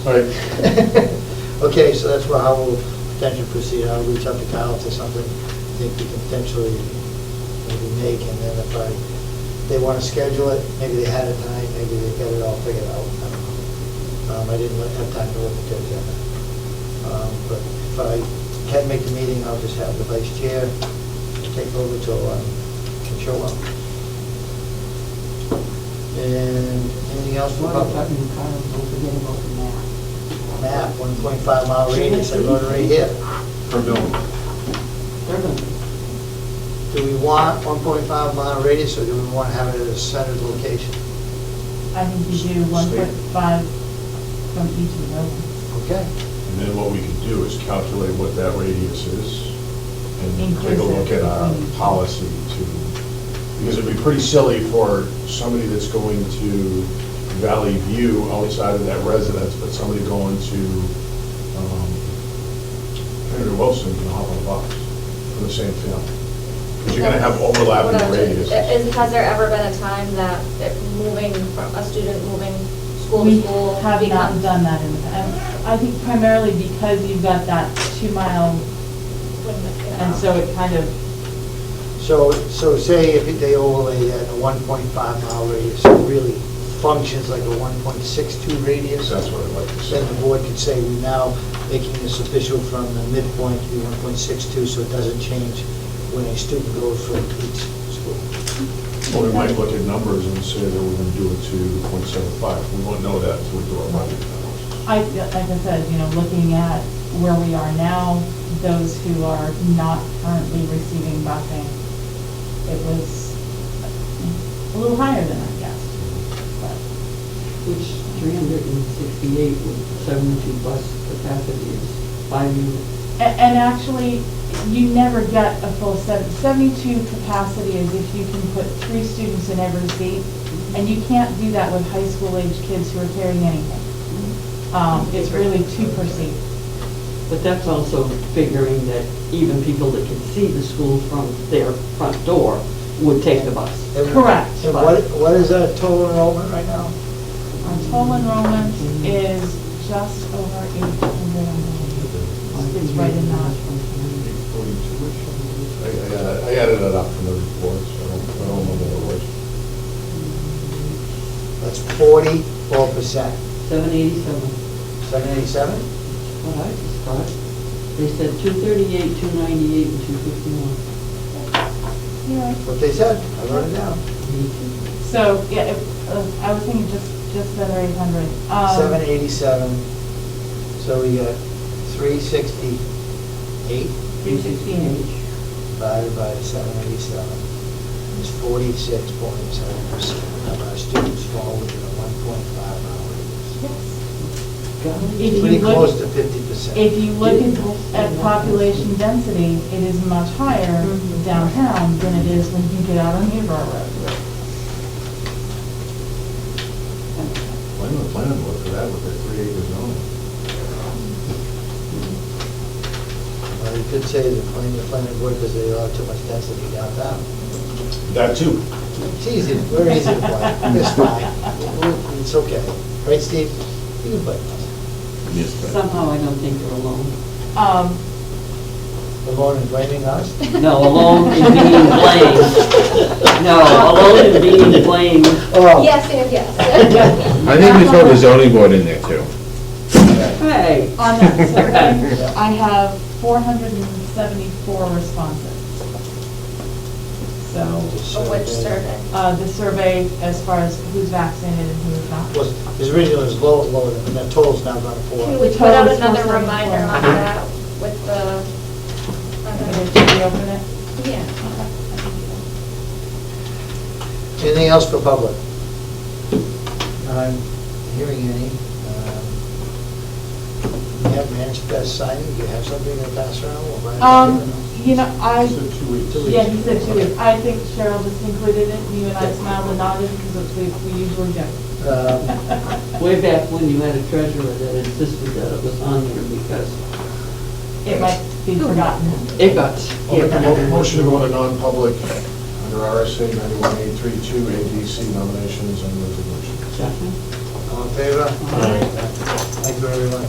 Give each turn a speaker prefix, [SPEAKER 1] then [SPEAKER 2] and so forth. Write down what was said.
[SPEAKER 1] All right,
[SPEAKER 2] Okay, so that's where I will potentially proceed. I'll reach out to Kyle to something I think we can potentially maybe make, and then if I, they want to schedule it, maybe they had it tonight, maybe they got it all figured out. I don't know. Um, I didn't look- have time to look at the agenda. Um, But if I can make the meeting, I'll just have the vice chair take over um, till I can show up. And anything else
[SPEAKER 3] What
[SPEAKER 2] about
[SPEAKER 3] about
[SPEAKER 2] that?
[SPEAKER 3] that new car? Don't forget about the map.
[SPEAKER 2] map, 1.5 mile radius, I wrote it right here.
[SPEAKER 4] per building.
[SPEAKER 3] They're gonna,
[SPEAKER 2] Do we want 1.5 mile radius, or do we want to have it at a centered location?
[SPEAKER 5] I think you should do one
[SPEAKER 2] Sweet.
[SPEAKER 5] point five from each of them,
[SPEAKER 2] Okay.
[SPEAKER 4] And then what we can do is calculate what that radius is and take a look at our
[SPEAKER 5] Inclusive.
[SPEAKER 4] policy to, because it'd be pretty silly for somebody that's going to Valley View outside of that residence, but somebody going to, um, Henry Wilson can hop on a bus for the same family. Because you're gonna have overlapping radius.
[SPEAKER 5] Uh,
[SPEAKER 6] Is, has there ever been a time that it moving, from a student moving school
[SPEAKER 5] We
[SPEAKER 6] to school?
[SPEAKER 5] have not
[SPEAKER 6] becomes-
[SPEAKER 5] done that in the past. I think primarily because you've got that two mile,
[SPEAKER 6] wouldn't it, you
[SPEAKER 5] and
[SPEAKER 6] know?
[SPEAKER 5] so it kind of,
[SPEAKER 2] So, so say if they overlay that a 1.5 mile radius, it really functions like a 1.62 radius?
[SPEAKER 4] That's what I'd like to say.
[SPEAKER 2] Then the board could say, we're now making this official from the midpoint to be 1.62, so it doesn't change when a student goes from each school.
[SPEAKER 4] Or we might look at numbers and say that we're gonna do it to point seven five. We won't know that until we do our budget analysis.
[SPEAKER 5] I, like I said, you know, looking at where we are now, those who are not currently receiving busing, it was a little higher than I guessed, but
[SPEAKER 3] which three hundred and sixty-eight with seventy-two bus capacity is five units.
[SPEAKER 5] A- And actually, you never get a full sev- 72 capacity is if you can put three students in every seat, and you can't do that with high school age kids who are carrying anything. Um, It's really two per seat.
[SPEAKER 3] But that's also figuring that even people that can see the school from their front door would take the bus.
[SPEAKER 2] And-
[SPEAKER 5] Correct.
[SPEAKER 2] And what, what is our total enrollment right now?
[SPEAKER 5] Our total enrollment is just over 800. It's right in that.
[SPEAKER 4] I, I added- I added it up from the reports, I don't, I don't remember what it was.
[SPEAKER 2] That's 44%.
[SPEAKER 3] Seven eighty-seven.
[SPEAKER 2] 787?
[SPEAKER 3] What I just thought, they said two thirty-eight, two ninety-eight, and two fifty-one.
[SPEAKER 5] Yeah.
[SPEAKER 2] What they said, I wrote it down.
[SPEAKER 5] So, yeah, it- uh, I was thinking just, just under 800. Um,
[SPEAKER 2] Seven eighty-seven, so we got three sixty-eight
[SPEAKER 5] 368.
[SPEAKER 2] divided by seven eighty-seven. It's forty-six point seven percent of our students fall within a one point five mile radius.
[SPEAKER 5] Yes. If you
[SPEAKER 3] Golly.
[SPEAKER 2] Pretty
[SPEAKER 5] look-
[SPEAKER 2] close to fifty percent.
[SPEAKER 5] If you look at- at population density, it is much higher downtown than it is when you get out on Newborough Road.
[SPEAKER 4] Blame the planning board for that with their three acre zone.
[SPEAKER 2] Well, you could say the planning, the planning board, because they allow too much density downtown.
[SPEAKER 4] That too.
[SPEAKER 2] It's easy, we're easy to blame, it's fine, it's okay. Right, Steve? You can blame us.
[SPEAKER 3] Somehow I don't think you're alone.
[SPEAKER 5] Um,
[SPEAKER 2] Alone and blaming us?
[SPEAKER 3] No, alone in being blamed. No, alone in being blamed.
[SPEAKER 2] Oh.
[SPEAKER 6] Yes, and yes.
[SPEAKER 7] I think we throw the zoning board in there too.
[SPEAKER 3] Hey,
[SPEAKER 5] On that survey, I have 474 responses. So,
[SPEAKER 6] Of Which survey?
[SPEAKER 5] uh, the survey as far as who's vaccinated and who is not.
[SPEAKER 2] was, his original is low, lower than, and that total's now gone to
[SPEAKER 6] Can
[SPEAKER 2] four.
[SPEAKER 6] we put out
[SPEAKER 5] Total is
[SPEAKER 6] another
[SPEAKER 5] 474.
[SPEAKER 6] reminder on that with the, I don't
[SPEAKER 5] Okay,
[SPEAKER 6] know.
[SPEAKER 5] Should we open it?
[SPEAKER 6] yeah.
[SPEAKER 2] Anything else for public? I'm hearing any. um, You have manifest signing, you have something to pass around? We'll buy it.
[SPEAKER 5] Um, you know, I.
[SPEAKER 4] Said two weeks.
[SPEAKER 5] Yeah, he said two weeks. I think Cheryl just included it, and you and I smiled and nodded, because we, we usually do.
[SPEAKER 2] Um,
[SPEAKER 3] way back when you had a treasurer that insisted that it was on there because
[SPEAKER 5] It might be forgotten.
[SPEAKER 3] it got
[SPEAKER 4] I'll make a mo-
[SPEAKER 3] skipped.
[SPEAKER 4] motion to go into non-public under RSA ninety-one eight three two, ADC nominations and resolutions.
[SPEAKER 3] Second.
[SPEAKER 2] All in in favor?
[SPEAKER 3] Aye.
[SPEAKER 2] Thank you, everyone.